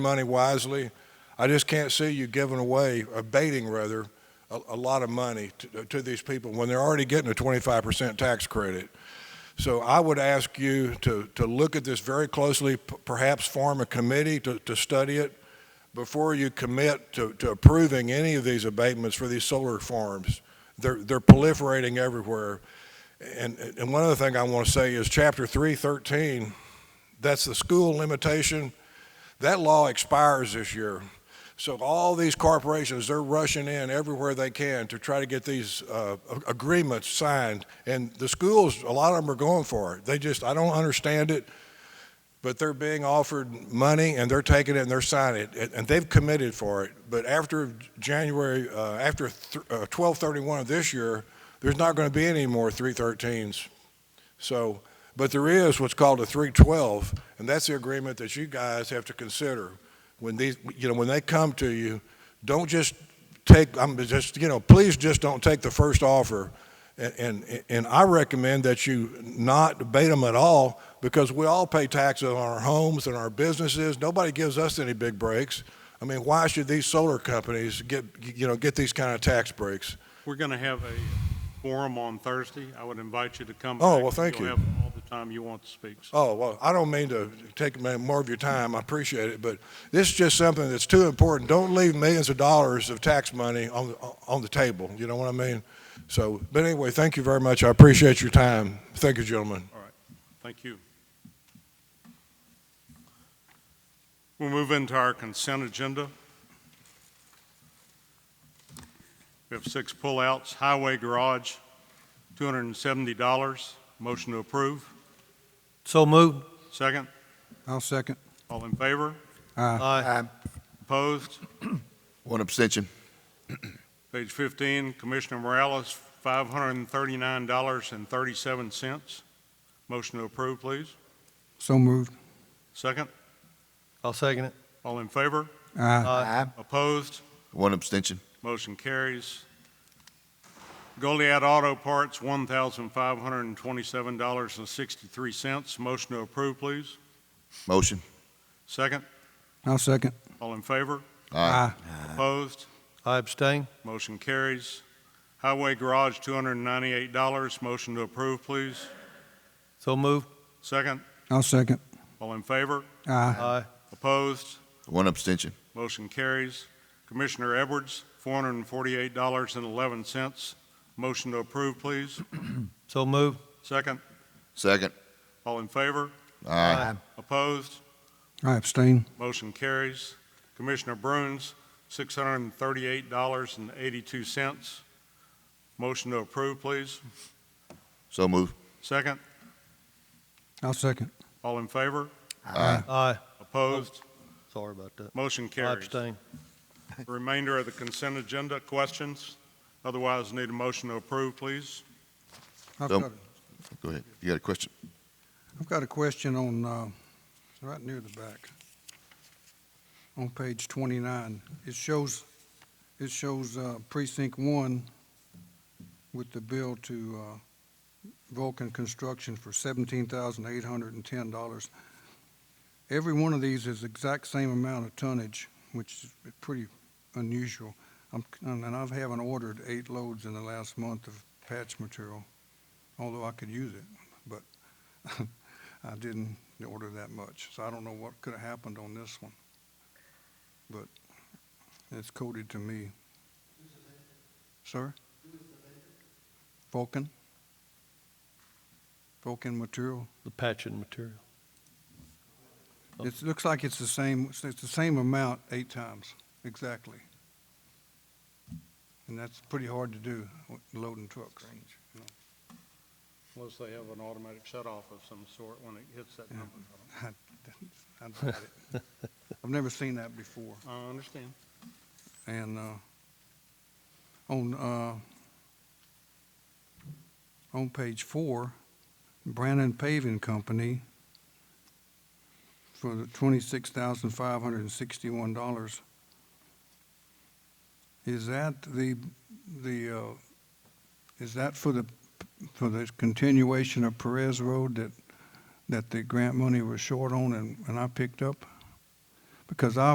money wisely. I just can't see you giving away, abating rather, a, a lot of money to, to these people when they're already getting a 25% tax credit. So I would ask you to, to look at this very closely, p- perhaps form a committee to, to study it before you commit to, to approving any of these abatements for these solar farms. They're, they're proliferating everywhere. And, and one other thing I want to say is chapter 313, that's the school limitation. That law expires this year. So all these corporations, they're rushing in everywhere they can to try to get these uh, a- agreements signed. And the schools, a lot of them are going for it. They just, I don't understand it, but they're being offered money and they're taking it and they're signing it. And- And they've committed for it. But after January, uh, after th- uh, 1231 of this year, there's not going to be any more 313s. So, but there is what's called a 312, and that's the agreement that you guys have to consider when these, you know, when they come to you, don't just take, I'm just, you know, please just don't take the first offer. And, and, and I recommend that you not debate them at all because we all pay taxes on our homes and our businesses. Nobody gives us any big breaks. I mean, why should these solar companies get, you know, get these kind of tax breaks? We're going to have a forum on Thursday. I would invite you to come. Oh, back. well, thank you. You'll have all the time you want to speak. So Oh, well, I don't mean to take ma- more of your time. I appreciate it, but this is just something that's too important. Don't leave millions of dollars of tax money on, on the table. You know what I mean? So, but anyway, thank you very much. I appreciate your time. Thank you, gentlemen. Thank you. We'll move into our consent agenda. We have six pullouts. Highway Garage, $270. Motion to approve. So moved. Second. I'll second. All in favor? Aye. Opposed? One abstention. Page 15, Commissioner Morales, $539.37. Motion to approve, please. So moved. Second. I'll second it. All in favor? Aye. Aye. Opposed? One abstention. Motion carries. Goliad Auto Parts, $1,527.63. Motion to approve, please. Motion. Second. I'll second. All in favor? Aye. Opposed? I abstain. Motion carries. Highway Garage, $298. Motion to approve, please. So moved. Second. I'll second. All in favor? Aye. Aye. Opposed? One abstention. Motion carries. Commissioner Edwards, $448.11. Motion to approve, please. So moved. Second. Second. All in favor? Aye. Opposed? I abstain. Motion carries. Commissioner Bruins, $638.82. Motion to approve, please. So move. Second. I'll second. All in favor? Aye. Aye. Opposed? Sorry about that. Motion I carries. abstain. Remainder of the consent agenda, questions? Otherwise, need a motion to approve, please. I've So- got, Go ahead. You got a question? I've got a question on, uh, it's right near the back. On page twenty-nine, it shows, it shows, uh, precinct one with the bill to, uh, Vulcan Construction for seventeen thousand eight hundred and ten dollars. Every one of these is exact same amount of tonnage, which is pretty unusual. I'm, and and I've haven't ordered eight loads in the last month of patch material, although I could use it, but I didn't order that much. So I don't know what could have happened on this one. But it's coded to me. Sir? Vulcan? Vulcan material? The patching material. It looks like it's the same, it's the same amount eight times, exactly. And that's pretty hard to do, loading trucks. Unless they have an automatic shut-off of some sort when it hits that number. I doubt it. I've never seen that before. I understand. And uh, on, uh, on page four, Brandon Paving Company for the twenty-six thousand five hundred and sixty-one dollars. Is that the, the, uh, is that for the, for the continuation of Perez Road that, that the grant money was short on and, and I picked up? Because I